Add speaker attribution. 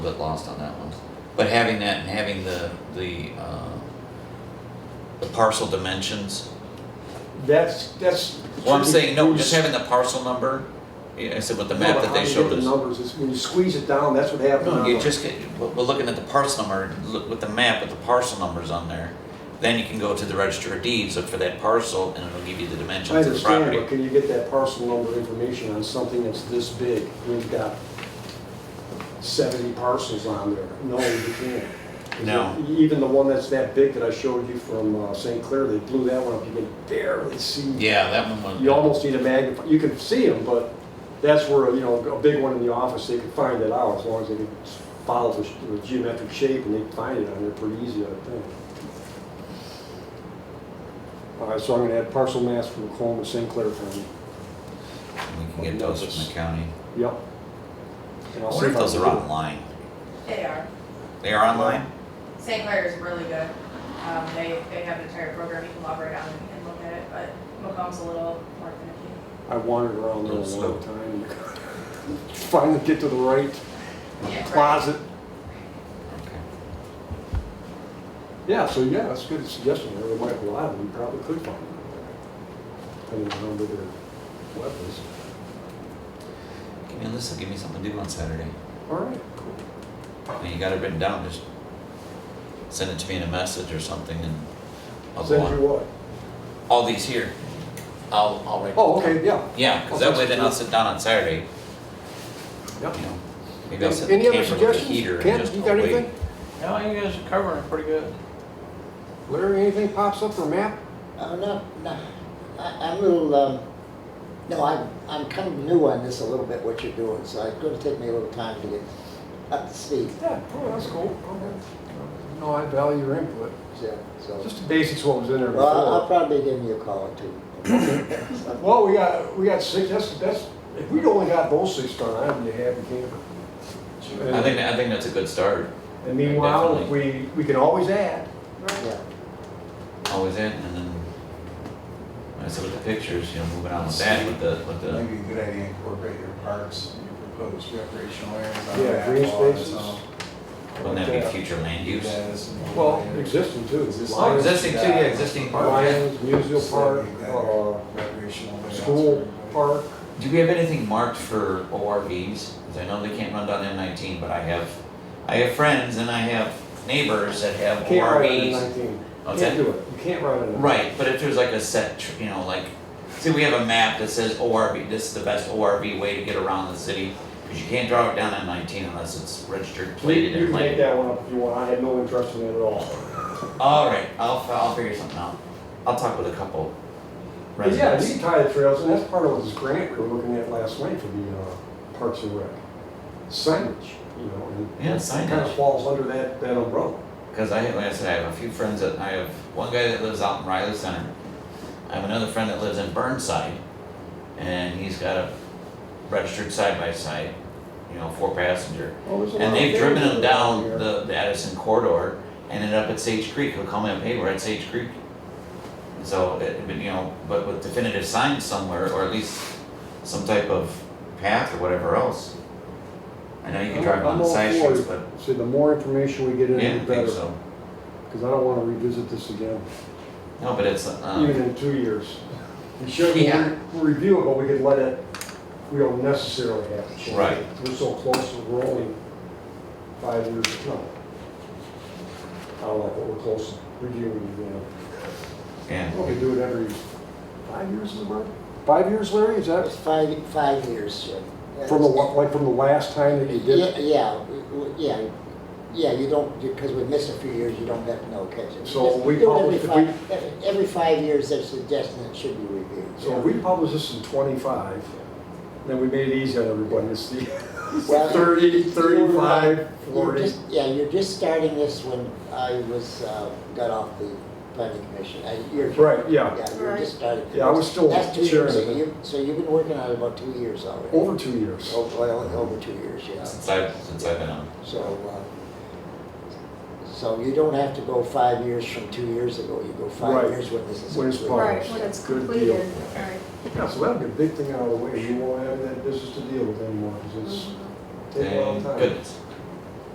Speaker 1: bit lost on that one. But having that and having the, the, uh, the parcel dimensions,
Speaker 2: That's, that's.
Speaker 1: well, I'm saying, no, just having the parcel number, yeah, I said with the map that they showed
Speaker 2: The
Speaker 1: us.
Speaker 2: numbers, it's when you squeeze it down, that's what happened.
Speaker 1: No,
Speaker 2: on
Speaker 1: you
Speaker 2: the-
Speaker 1: just get, we're we're looking at the parcel number, look with the map with the parcel numbers on there. Then you can go to the register of deeds, look for that parcel, and it'll give you the
Speaker 2: I
Speaker 1: dimensions of the
Speaker 2: understand,
Speaker 1: property.
Speaker 2: but can you get that parcel number information on something that's this big? We've got seventy parcels on there. No, you can't. 'Cause
Speaker 1: No.
Speaker 2: e- Even the one that's that big that I showed you from uh, St. Clair, they blew that one up. You can barely see.
Speaker 1: Yeah, that one was.
Speaker 2: You almost need a magnify, you can see them, but that's where, you know, a big one in the office, they could find it out as long as they could follow the sh- the geometric shape and they'd find it on there pretty easy, I think. All right, so I'm gonna add parcel mass from Coloma, St. Clair County.
Speaker 1: We can get those from the county.
Speaker 2: Yep. And
Speaker 1: I
Speaker 2: I'll see
Speaker 1: wonder if
Speaker 2: I
Speaker 1: those
Speaker 2: can
Speaker 1: are
Speaker 2: do it.
Speaker 1: online.
Speaker 3: They are.
Speaker 1: They are online?
Speaker 3: St. Clair is really good. Um, they, they have an entire program you can log right on and, and look at it, but Macomb's a little more finicky.
Speaker 2: I wandered around there a
Speaker 1: Those
Speaker 2: long time. Finally get to the right
Speaker 3: Yeah, right.
Speaker 2: closet.
Speaker 1: Okay.
Speaker 2: Yeah, so yeah, that's a good suggestion. There might be a lot of them, you probably could find them. Depending on where their web is.
Speaker 1: Give me a list, give me something to do on Saturday.
Speaker 2: All right, cool.
Speaker 1: I mean, you got it written down, just send it to me in a message or something and I'll go
Speaker 2: Send you
Speaker 1: on.
Speaker 2: what?
Speaker 1: All these here, I'll, I'll write.
Speaker 2: Oh, okay, yeah.
Speaker 1: Yeah, cause that
Speaker 2: I'll
Speaker 1: way
Speaker 2: text
Speaker 1: then
Speaker 2: you.
Speaker 1: I'll sit down on Saturday,
Speaker 2: Yep.
Speaker 1: you know, maybe I'll set the
Speaker 2: Any other
Speaker 1: camper with the
Speaker 2: suggestions?
Speaker 1: heater and
Speaker 2: Kent,
Speaker 1: just
Speaker 2: you got
Speaker 1: wait.
Speaker 2: anything?
Speaker 4: No, you guys are covering it pretty good.
Speaker 2: Larry, anything pops up for map?
Speaker 5: Uh, no, no, I, I'm a little, um, no, I'm, I'm kind of new on this a little bit, what you're doing, so it's gonna take me a little time to get up to speed,
Speaker 2: Yeah, oh, that's cool. No, I value your input.
Speaker 5: so, so.
Speaker 2: Just the basics what was in there
Speaker 5: Well, I'll- I'll
Speaker 2: before.
Speaker 5: probably be giving you a call or two.
Speaker 2: Well, we got, we got six, that's, that's, if we'd only got those six done, I'd be happy camper.
Speaker 1: I think, I think that's a good start,
Speaker 2: And meanwhile, if we, we can always add.
Speaker 5: Yeah,
Speaker 1: always in, and then, I said with the pictures, you know, moving on with that, with the, with the,
Speaker 6: Maybe a good idea to incorporate your parks, and your proposed recreational areas. on
Speaker 2: Yeah,
Speaker 6: that
Speaker 2: green
Speaker 6: wall or
Speaker 2: spaces.
Speaker 6: something.
Speaker 1: wouldn't that
Speaker 2: uh,
Speaker 1: be future land
Speaker 6: Yeah,
Speaker 1: use?
Speaker 6: that's a good
Speaker 2: Well,
Speaker 6: idea.
Speaker 2: existing too.
Speaker 6: Existing.
Speaker 1: Oh,
Speaker 2: Lions-
Speaker 1: existing too, yeah, existing park, yeah.
Speaker 2: Lions, Museum
Speaker 6: Just
Speaker 2: Park,
Speaker 6: like that
Speaker 2: uh,
Speaker 6: Recreational. layouts for
Speaker 2: school
Speaker 6: everybody.
Speaker 2: park.
Speaker 1: Do we have anything marked for ORVs? 'Cause I know they can't run down M nineteen, but I have, I have friends and I have neighbors that have
Speaker 2: Can't ride on N
Speaker 1: ORVs.
Speaker 2: nineteen.
Speaker 1: Oh,
Speaker 2: Can't
Speaker 1: that-
Speaker 2: do it. You can't ride on it.
Speaker 1: Right, but if there's like a set, tr- you know, like, see, we have a map that says ORV, this is the best ORV way to get around the city, cause you can't drive it down M nineteen unless it's registered,
Speaker 2: You
Speaker 1: plated
Speaker 2: you
Speaker 1: and
Speaker 2: can make
Speaker 1: like.
Speaker 2: that one up if you want. I had no interest in it at all.
Speaker 1: Alright, I'll, fi- I'll figure something out. I'll talk with a couple
Speaker 2: But yeah, you
Speaker 1: residents.
Speaker 2: can tie the trails, and that's part of this grant we were looking at last night for the uh, Parks and Rec. Signage, you know, and
Speaker 1: Yeah,
Speaker 2: it kind of
Speaker 1: signage.
Speaker 2: falls under that, that umbrella.
Speaker 1: Because I, like I said, I have a few friends that, I have one guy that lives out in Riley Center. I have another friend that lives in Burnside, and he's got a registered side-by-side, you know, four passenger. And they've driven him down the, the Addison corridor, and ended up at Sage Creek, he'll call me up, hey, we're at Sage Creek. And So, it, but, you know, but with definitive signs somewhere, or at least some type of path or whatever else. I know you can drive on the side streets, but,
Speaker 2: See, the more information we get
Speaker 1: yeah, I
Speaker 2: in, the
Speaker 1: think
Speaker 2: better,
Speaker 1: so.
Speaker 2: because I don't want to revisit this again,
Speaker 1: No, but it's, um.
Speaker 2: even in two years. We should, we
Speaker 1: Yeah.
Speaker 2: review it, but we could let it, we don't necessarily have to change it.
Speaker 1: Right.
Speaker 2: We're so close, we're only five years, no. I don't like what we're close to reviewing, you know.
Speaker 1: Yeah,
Speaker 2: Well, we do it every five years, is it right? Five years, Larry, is
Speaker 5: that was
Speaker 2: that
Speaker 5: five, five years, Jim. That
Speaker 2: from the,
Speaker 5: was-
Speaker 2: wa- like from the last time that you did
Speaker 5: Yeah,
Speaker 2: it?
Speaker 5: yeah, w- w- yeah, yeah, you don't, because we miss a few years, you don't have to know, catch it.
Speaker 2: So we
Speaker 5: Do it every
Speaker 2: probably-
Speaker 5: five- every- Every five years, they're suggesting it should be reviewed.
Speaker 2: So if we publish this in twenty-five, then we made it easy on everybody, it's the
Speaker 5: Well,
Speaker 2: thirty,
Speaker 5: you were right.
Speaker 2: thirty-five,
Speaker 5: You're
Speaker 2: forty.
Speaker 5: just, yeah, you're just starting this when I was, uh, got off the planning commission. Uh, you're-
Speaker 2: Right, yeah.
Speaker 5: Yeah, you're just starting.
Speaker 2: Yeah, I was still
Speaker 5: That's two
Speaker 2: chairman
Speaker 5: years, so
Speaker 2: of it.
Speaker 5: you, so you've been working on it about two years already.
Speaker 2: Over two years.
Speaker 5: Oh, Well, over two years, yeah.
Speaker 1: since I've, since I've been on.
Speaker 5: So, uh, so you don't have to go five years from two years ago, you go
Speaker 2: Right.
Speaker 5: five years when this is.
Speaker 2: When it's
Speaker 5: completed.
Speaker 2: published.
Speaker 7: Right, when it's
Speaker 2: Good
Speaker 7: completed,
Speaker 2: deal.
Speaker 7: right.
Speaker 2: Yeah, so that'd be a big thing out of the way, you won't have that business to deal with anymore, because it's take a long
Speaker 1: Thank
Speaker 2: time.
Speaker 1: goodness.